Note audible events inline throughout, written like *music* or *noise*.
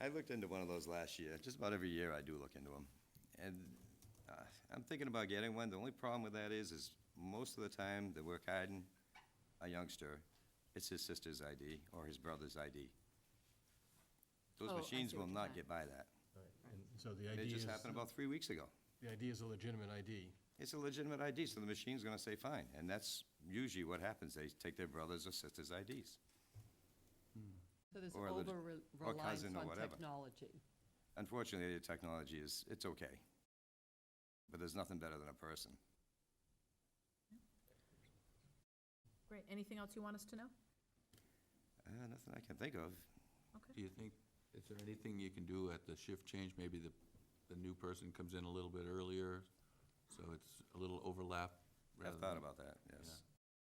I looked into one of those last year. Just about every year I do look into them. And uh, I'm thinking about getting one. The only problem with that is, is most of the time that we're hiding a youngster, it's his sister's ID or his brother's ID. Those Oh, I machines see what will you not meant. get by that. And so the idea It is, just happened about three weeks ago. the idea is a legitimate ID. It's a legitimate ID, so the machine's gonna say fine. And that's usually what happens. They take their brother's or sister's IDs. So this or lit- over or cousin reliance or on whatever. technology. Unfortunately, the technology is, it's okay. But there's nothing better than a person. Great. Anything else you want us to know? Uh, nothing I can think of. Okay. Do you think, is there anything you can do at the shift change? Maybe the, the new person comes in a little bit earlier, so it's a little overlap? I've rather thought than- about that, yes.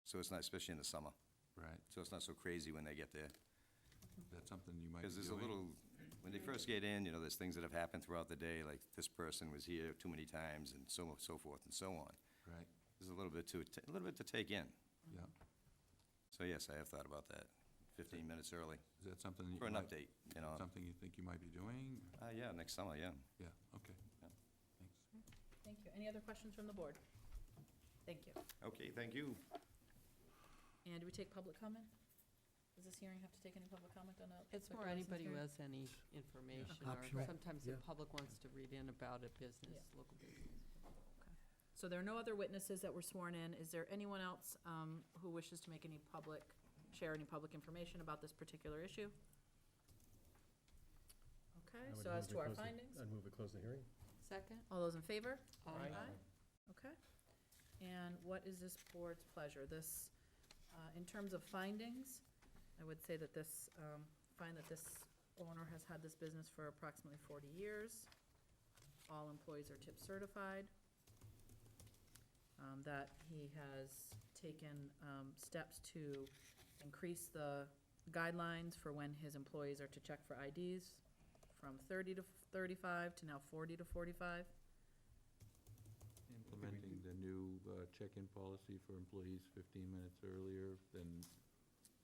So it's not, especially in the summer, Right, so it's not so crazy when they get there. that's something you might be Because there's a doing? little, when they first get in, you know, there's things that have happened throughout the day, like this person was here too many times and so, so forth and so on. Right, There's a little bit to, a little bit to take in. yeah. So yes, I have thought about that, 15 minutes early, Is that something? that you for an might- update, you know. Something you think you might be doing? Uh, yeah, next summer, yeah. Yeah, okay. Yeah. Thanks. Thank you. Any other questions from the board? Thank you. Okay, thank you. And do we take public comment? Does this hearing have to take any public comment on a? It's liquor more license anybody who hearing? has any information, or Optional, sometimes the yeah. public wants to read in about a business, local business. So there are no other witnesses that were sworn in. Is there anyone else um, who wishes to make any public, share any public information about this particular issue? Okay, I would so as move we to our close the- findings, I'd move to close the hearing. Second? all those in favor? Aye. Okay. And what is this board's pleasure? This, uh, in terms of findings, I would say that this, um, find that this owner has had this business for approximately 40 years. All employees are tip certified. Um, That he has taken um, steps to increase the guidelines for when his employees are to check for IDs from 30 to 35 to now 40 to 45. Implementing the new uh, check-in policy for employees 15 minutes earlier than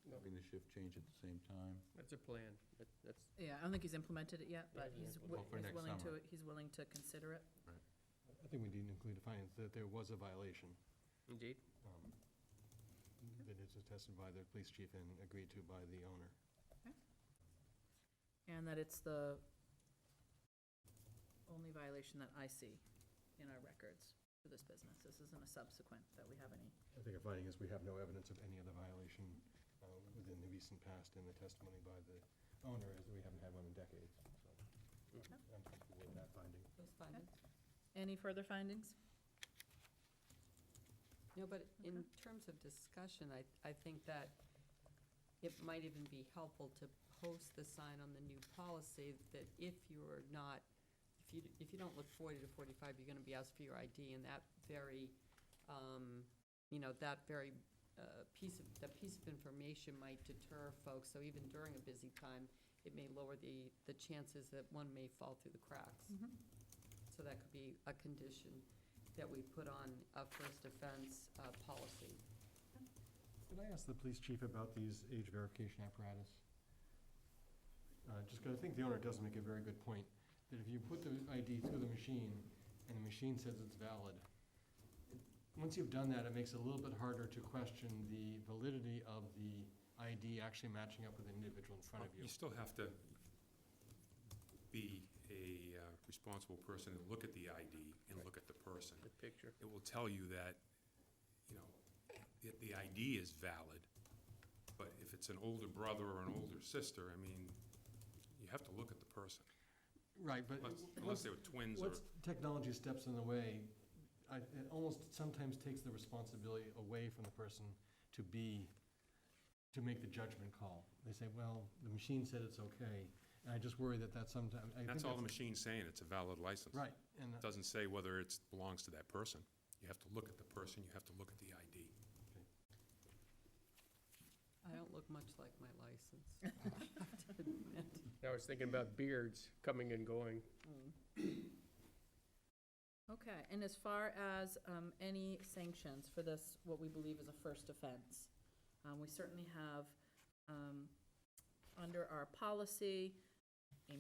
No. having the shift change at the same time. That's a plan, That- that's, Yeah, I don't think he's implemented it yet, but Yeah, he's, yeah. wi- Well, for he's next willing to, summer. he's willing to consider it. I think we need to include a finding that there was a violation indeed. um, that is attested by the police chief and agreed to by the owner. And that it's the only violation that I see in our records for this business. This isn't a subsequent that we have any. I think a finding is we have no evidence of any other violation uh, within the recent past and the testimony by the owner is that we haven't had one in decades. So I'm comfortable with that finding. Those findings. Any further findings? No, but in terms of discussion, I, I think that it might even be helpful to post the sign on the new policy that if you're not, if you, if you don't look forty to forty-five, you're gonna be asked for your ID, and that very, um, you know, that very, uh, piece of, that piece of information might deter folks, so even during a busy time, it may lower the, the chances that one may fall through the cracks. So that could be a condition that we put on a first offense uh, policy. Did I ask the police chief about these age verification apparatus? Uh, just 'cause I think the owner does make a very good point, that if you put the ID through the machine and the machine says it's valid, it- once you've done that, it makes it a little bit harder to question the validity of the ID actually matching up with the individual in front of you. You still have to be a uh, responsible person and look at the ID and look at the person. The picture. It will tell you that, you know, if the ID is valid, but if it's an older brother or an older sister, I mean, you have to look at the person. Right, but. Unless, once- unless they were twins or, Once technology steps in the way, I, it almost sometimes takes the responsibility away from the person to be, to make the judgment call. They say, well, the machine said it's okay, and I just worry that that sometimes. that's all the machine's saying, it's a valid license. Right, and, It Doesn't say whether it belongs to that person. You have to look at the person, you have to look at the ID. I don't look much like my license. *laughs* I have to admit. I was thinking about beards coming and going. Hmm. Okay, and as far as um, any sanctions for this, what we believe is a first offense, um, we certainly have, um, under our policy,